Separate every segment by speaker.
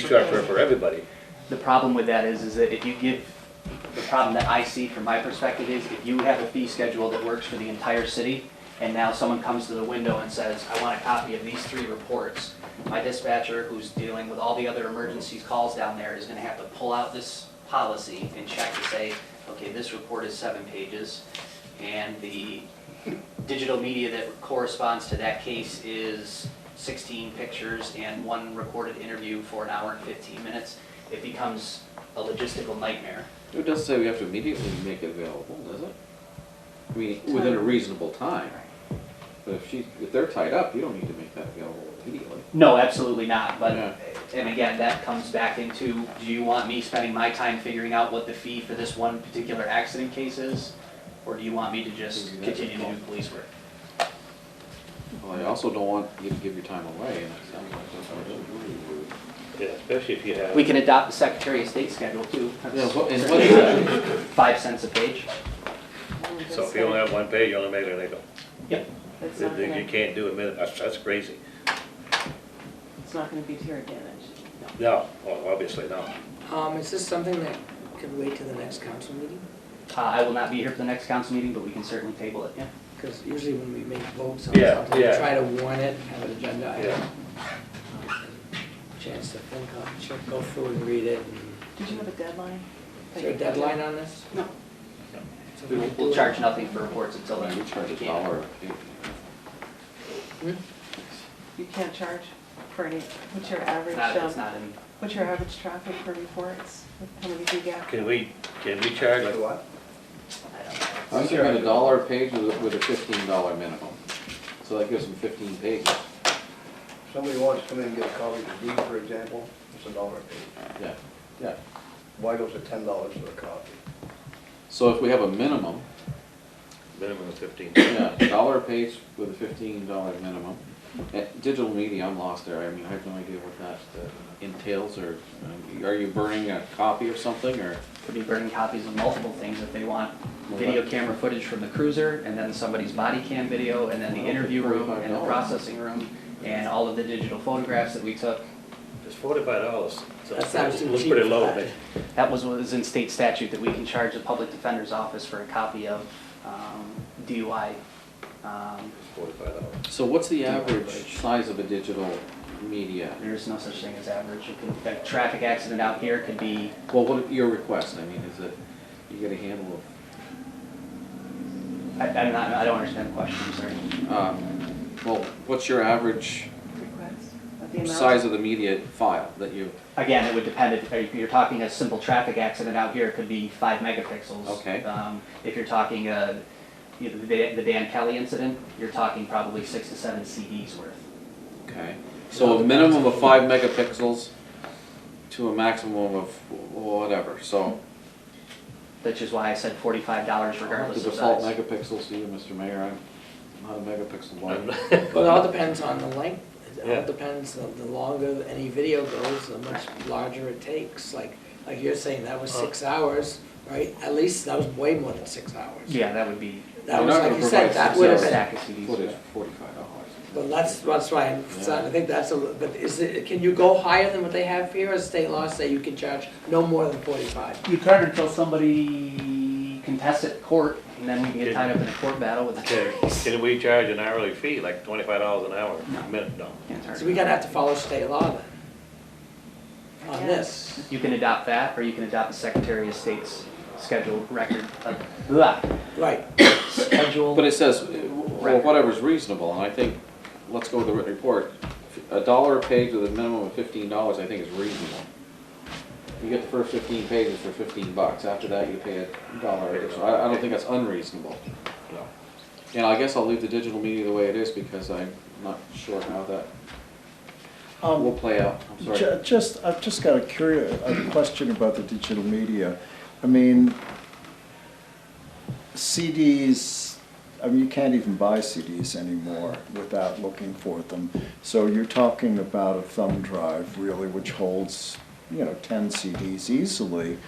Speaker 1: structure for everybody.
Speaker 2: The problem with that is, is that if you give, the problem that I see from my perspective is if you have a fee schedule that works for the entire city, and now someone comes to the window and says, I want a copy of these three reports, my dispatcher, who's dealing with all the other emergencies calls down there, is gonna have to pull out this policy and check to say, okay, this report is seven pages, and the digital media that corresponds to that case is sixteen pictures and one recorded interview for an hour and fifteen minutes it becomes a logistical nightmare.
Speaker 3: It doesn't say we have to immediately make it available, does it? I mean, within a reasonable time. But if she, if they're tied up, you don't need to make that available immediately.
Speaker 2: No, absolutely not, but,
Speaker 3: Yeah.
Speaker 2: and again, that comes back into, do you want me spending my time figuring out what the fee for this one particular accident case is? Or do you want me to just
Speaker 3: Exactly.
Speaker 2: continue to do police work?
Speaker 3: Well, I also don't want you to give your time away, and it sounds like that's what it
Speaker 1: Yeah, especially if you have.
Speaker 2: We can adopt the Secretary of State schedule too,
Speaker 3: is. Yeah,
Speaker 2: that's
Speaker 3: what- and what is that?
Speaker 2: five cents a page.
Speaker 1: So if you only have one page, you only make it legal.
Speaker 4: It's
Speaker 1: You
Speaker 4: not gonna,
Speaker 1: you can't do a minute, that's, that's crazy.
Speaker 4: it's not gonna be to your advantage.
Speaker 1: No, well, obviously not.
Speaker 5: Um, is this something that could wait till the next council meeting?
Speaker 2: Uh, I will not be here for the next council meeting, but we can certainly table it, yeah.
Speaker 5: Because usually when we make votes on something,
Speaker 1: Yeah, yeah.
Speaker 5: we try to warn it, have an agenda
Speaker 1: Yeah.
Speaker 5: item. Chance to think on, check, go through and read it. and-
Speaker 4: Did you have a deadline?
Speaker 5: Is there a deadline on this?
Speaker 2: No.
Speaker 5: So
Speaker 2: We will, we'll charge nothing for reports until
Speaker 3: I
Speaker 2: then.
Speaker 3: mean, we charge a
Speaker 2: We can't.
Speaker 3: dollar.
Speaker 4: You can't charge for any, what's your average,
Speaker 2: Not, it's
Speaker 4: um,
Speaker 2: not in,
Speaker 4: what's your average traffic for reports? How many do you get?
Speaker 1: Can we, can we charge like what?
Speaker 2: I don't know.
Speaker 3: I'm giving a dollar a page with, a- with a fifteen dollar minimum. So that gives them fifteen pages,
Speaker 6: Somebody wants to come in and get a copy of the deed, for example, it's a dollar a page.
Speaker 3: yeah, yeah.
Speaker 6: Weigel's at ten dollars for a copy.
Speaker 3: So if we have a minimum,
Speaker 1: Minimum of fifteen.
Speaker 3: Yeah, dollar a page with a fifteen dollar minimum. Uh, Digital media, I'm lost there, I mean, I have no idea what that uh, entails, or uh, are you burning a copy of something, or?
Speaker 2: could be burning copies of multiple things if they want. Video camera footage from the cruiser, and then somebody's body cam video, and then the interview room, and the
Speaker 3: $45.
Speaker 2: processing room, and all of the digital photographs that we took.
Speaker 1: It's forty-five dollars.
Speaker 5: That sounds too
Speaker 1: Looks
Speaker 5: cheap
Speaker 1: pretty
Speaker 5: for
Speaker 1: low,
Speaker 5: that.
Speaker 1: but
Speaker 2: That was what is in state statute, that we can charge the public defender's office for a copy of um, DUI. um,
Speaker 1: it's forty-five dollars.
Speaker 3: So what's the average size of a digital media?
Speaker 2: There is no such thing as average. It could- A traffic accident out here could be,
Speaker 3: Well, what, your request, I mean, is it, you get a handle
Speaker 2: I- I'm not, I don't understand the question, I'm sorry.
Speaker 3: of, um, well, what's your average
Speaker 4: Requests? Of the amount?
Speaker 3: size of the media file that you,
Speaker 2: Again, it would depend, if if you're talking a simple traffic accident out here, it could be five megapixels.
Speaker 3: Okay.
Speaker 2: Um, If you're talking, uh, you know, the Dan- the Dan Kelly incident, you're talking probably six to seven CDs worth.
Speaker 3: okay? So a minimum of five megapixels to a maximum of whatever, so.
Speaker 2: Which is why I said forty-five dollars regardless
Speaker 3: Oh, The
Speaker 2: of
Speaker 3: default
Speaker 2: size.
Speaker 3: megapixels to you, Mr. Mayor, I'm not a megapixel blind.
Speaker 5: Well, it all depends on the length, it
Speaker 1: Yeah.
Speaker 5: all depends, the the longer any video goes, the much larger it takes. Like, like you're saying, that was six hours, right? At least that was way more than six hours.
Speaker 2: Yeah, that would be,
Speaker 5: That
Speaker 3: You're
Speaker 5: was,
Speaker 3: not
Speaker 5: like
Speaker 3: gonna
Speaker 5: you said,
Speaker 3: provide
Speaker 5: that
Speaker 3: six
Speaker 5: would have
Speaker 3: hours.
Speaker 5: been
Speaker 2: stack of CDs.
Speaker 3: Footage, forty-five dollars.
Speaker 5: Well, that's, that's why I'm, so I think that's a, li- but is it, can you go higher than what they have here, or state law say you can charge no more than forty-five?
Speaker 2: You turn until somebody contests it in court, and then we can get tied up in a court battle with the
Speaker 1: Can, can we charge an hourly fee, like twenty-five dollars an hour, a minute, no?
Speaker 2: Can't charge
Speaker 5: So we
Speaker 2: it.
Speaker 5: gotta have to follow state law then,
Speaker 4: I
Speaker 5: on
Speaker 4: guess.
Speaker 5: this.
Speaker 2: You can adopt that, or you can adopt the Secretary of State's scheduled record, uh, blah,
Speaker 5: Right,
Speaker 2: schedule.
Speaker 3: But it says, uh, well, whatever's reasonable, and I think, let's go with the written report. A dollar a page with a minimum of fifteen dollars, I think is reasonable. You get the first fifteen pages for fifteen bucks, after that you pay a dollar, extra. I, I don't think that's unreasonable.
Speaker 1: No.
Speaker 3: And I guess I'll leave the digital media the way it is, because I'm not sure how that will
Speaker 7: Um,
Speaker 3: play out, I'm sorry.
Speaker 7: ju- Just, I've just got a curious, a question about the digital media. I mean, CDs, I mean, you can't even buy CDs anymore without looking for them. So you're talking about a thumb drive really, which holds, you know, ten CDs easily.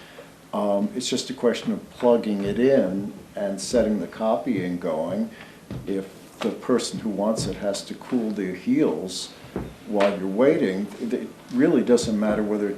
Speaker 7: Um, it's just a question of plugging it in and setting the copying going. If the person who wants it has to cool their heels while you're waiting, it really doesn't matter whether it